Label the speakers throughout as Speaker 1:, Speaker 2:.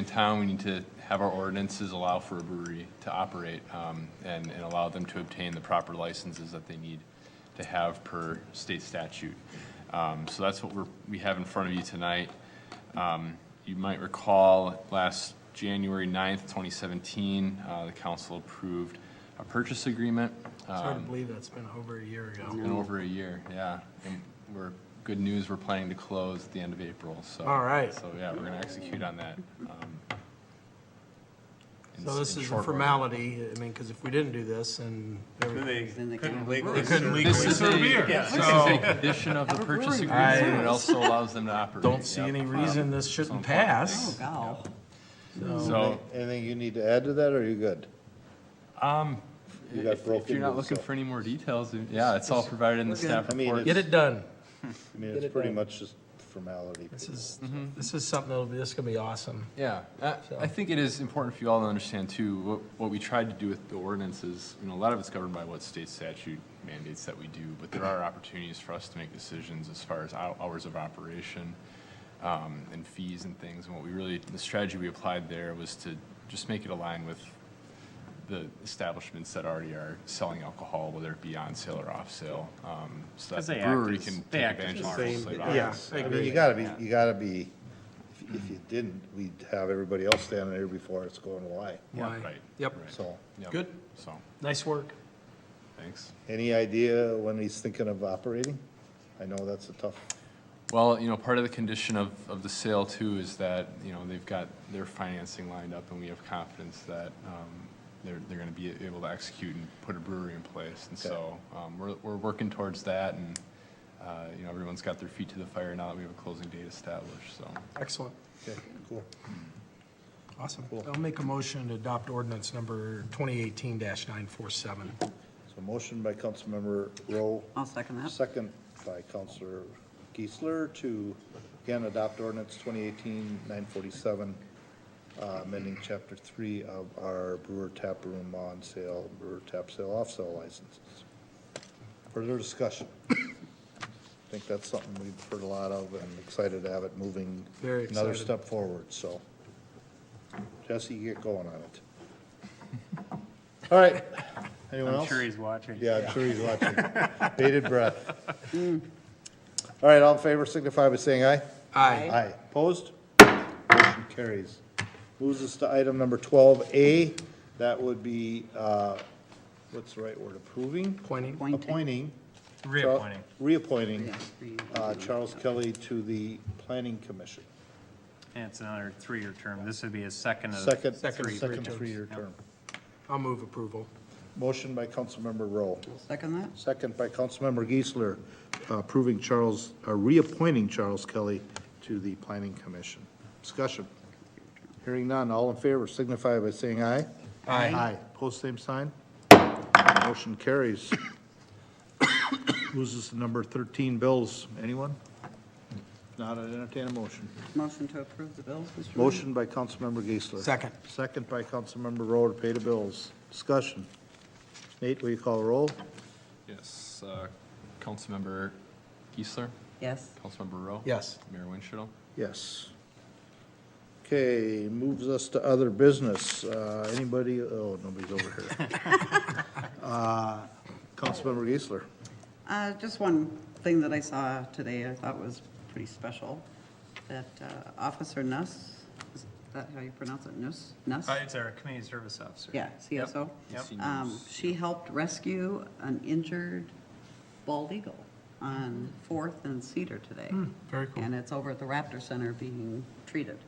Speaker 1: In town, we need to have our ordinances allow for a brewery to operate um, and, and allow them to obtain the proper licenses that they need to have per state statute. Um, So that's what we're, we have in front of you tonight. Um, You might recall, last January 9th, 2017, uh, the council approved a purchase agreement.
Speaker 2: It's hard to believe that's been over a year ago.
Speaker 1: In over a year, yeah. And we're, good news, we're planning to close at the end of April, so.
Speaker 2: All right.
Speaker 1: So, yeah, we're gonna execute on that. um, in
Speaker 2: So
Speaker 1: s-
Speaker 2: this
Speaker 1: in
Speaker 2: is a
Speaker 1: short order.
Speaker 2: formality, I mean, because if we didn't do this and.
Speaker 3: Then
Speaker 2: everything-
Speaker 3: they
Speaker 4: Then they
Speaker 3: couldn't
Speaker 4: can't.
Speaker 3: legally
Speaker 2: Couldn't
Speaker 3: serve-
Speaker 2: legally
Speaker 1: This is
Speaker 2: serve
Speaker 1: a-
Speaker 2: beer,
Speaker 3: Yeah.
Speaker 1: This is a condition of the purchase agreement, and it also allows them to operate.
Speaker 2: Don't see
Speaker 1: Yep.
Speaker 2: any reason this shouldn't pass.
Speaker 4: Wow.
Speaker 1: So,
Speaker 5: Anything you need to add to that, or are you good? You got
Speaker 1: Um, if if
Speaker 5: broken
Speaker 1: you're not
Speaker 5: news,
Speaker 1: looking
Speaker 5: so-
Speaker 1: for any more details, yeah, it's all provided in the staff
Speaker 5: I mean,
Speaker 1: report.
Speaker 2: Get it done.
Speaker 5: I mean, it's pretty much just formality.
Speaker 2: This is,
Speaker 1: Mm-hmm.
Speaker 2: this is something that'll be, this is gonna be awesome.
Speaker 1: Yeah, I, I think it is important for you all to understand too, what, what we tried to do with the ordinance is, you know, a lot of it's governed by what state statute mandates that we do, but there are opportunities for us to make decisions as far as hou- hours of operation, um, and fees and things, and what we really, the strategy we applied there was to just make it align with the establishments that already are selling alcohol, whether it be on sale or off sale, um, so
Speaker 3: 'Cause
Speaker 1: that
Speaker 3: they
Speaker 1: the
Speaker 3: act
Speaker 1: brewery
Speaker 3: as-
Speaker 1: can
Speaker 3: they
Speaker 1: take
Speaker 3: act as
Speaker 1: advantage of
Speaker 3: the
Speaker 1: our
Speaker 2: same-
Speaker 1: wholesale
Speaker 2: yeah.
Speaker 1: hours.
Speaker 2: I
Speaker 5: I mean,
Speaker 2: agree.
Speaker 5: you gotta be, you gotta be, if- if you didn't, we'd have everybody else standing there before it's going away.
Speaker 2: Why?
Speaker 1: Right.
Speaker 2: Yep,
Speaker 1: Right.
Speaker 5: So,
Speaker 1: Yep.
Speaker 2: good,
Speaker 1: So,
Speaker 2: nice work.
Speaker 1: thanks.
Speaker 5: any idea when he's thinking of operating? I know that's a tough,
Speaker 1: Well, you know, part of the condition of, of the sale too is that, you know, they've got their financing lined up and we have confidence that, um, they're, they're gonna be able to execute and put a brewery in place. And so, um, we're, we're working towards that and, uh, you know, everyone's got their feet to the fire now that we have a closing date established, so.
Speaker 2: Excellent,
Speaker 5: okay, cool.
Speaker 2: awesome. I'll make a motion to adopt ordinance number twenty eighteen nine four seven.
Speaker 5: So motion by Councilmember Rowe,
Speaker 4: I'll second that.
Speaker 5: second by Councilor Geisler to, again, adopt ordinance 2018-947, uh, amending Chapter 3 of our brewer tap room on sale, brewer tap sale, off sale licenses. Further discussion? I think that's something we've heard a lot of and excited to have it moving
Speaker 2: Very
Speaker 5: another
Speaker 2: excited.
Speaker 5: step forward, so. Jesse, get going on it. All right. Anyone else?
Speaker 3: I'm sure he's watching.
Speaker 5: Yeah, I'm sure he's watching. Bated breath. All right, all in favor signify by saying aye.
Speaker 2: Aye.
Speaker 5: Aye. Opposed? Motion carries. Moves us to item number twelve A. That would be, uh, what's the right word, approving?
Speaker 2: Pointing.
Speaker 4: Appointing.
Speaker 5: Appointing.
Speaker 3: Reappointing.
Speaker 5: Reappointing,
Speaker 4: Yeah, re-
Speaker 5: uh, Charles Kelly to the Planning Commission.
Speaker 3: And it's another three-year term. This would be his second of.
Speaker 5: Second,
Speaker 2: Second,
Speaker 5: second
Speaker 2: three
Speaker 5: three-year term.
Speaker 2: I'll move approval.
Speaker 5: Motion by Councilmember Rowe.
Speaker 4: I'll Second that?
Speaker 5: Second by Councilmember Geisler, approving Charles, uh, reappointing Charles Kelly to the Planning Commission. Discussion. Hearing none, all in favor signify by saying aye.
Speaker 2: Aye.
Speaker 5: Aye. Post same sign. Motion carries. Moves us to number 13, bills. Anyone? If Not I'd entertain a motion.
Speaker 4: Motion to approve the bills, Mr. Mayor?
Speaker 5: Motion by Councilmember Geisler.
Speaker 2: Second.
Speaker 5: Second by Councilmember Rowe to pay the bills. Discussion. Nate, will you call the roll?
Speaker 1: Yes, uh, Councilmember Geisler,
Speaker 4: Yes.
Speaker 1: Councilmember Rowe.
Speaker 2: Yes.
Speaker 1: Mayor Winchell.
Speaker 5: Yes. Okay, moves us to other business. Uh, Anybody, oh, nobody's over here. Uh, Councilmember Geisler.
Speaker 4: Uh, Just one thing that I saw today I thought was pretty special, that uh, Officer Nuss, is that how you pronounce it, Nuss? Nuss?
Speaker 3: Uh, It's our community service officer.
Speaker 4: Yeah, CSO.
Speaker 3: Yep.
Speaker 4: Um, She helped rescue an injured bald eagle on Fourth and Cedar today.
Speaker 2: very cool.
Speaker 4: And it's over at the Raptor Center being treated,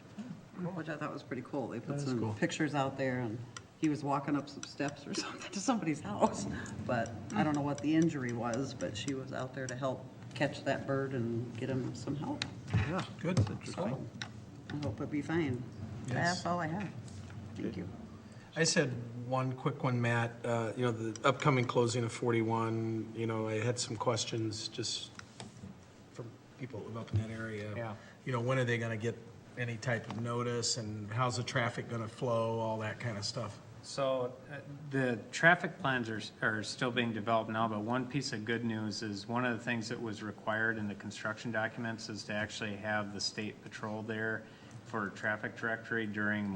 Speaker 4: which I thought was pretty cool. They put some pictures out there, and he was walking up some steps or something to somebody's house. But I don't know what the injury was, but she was out there to help catch that bird and get him some help.
Speaker 5: Yeah.
Speaker 2: Good,
Speaker 4: So I hope it'd be fine. That's all I have. Thank you.
Speaker 2: I just had one quick one, Matt. Uh, You know, the upcoming closing of 41, you know, I had some questions just from people who live up in that area.
Speaker 3: Yeah.
Speaker 2: You know, when are they going to get any type of notice and how's the traffic going to flow, all that kind of stuff?
Speaker 3: So uh, the traffic plans are, are still being developed now, but one piece of good news is one of the things that was required in the construction documents is to actually have the state patrol there for traffic directory during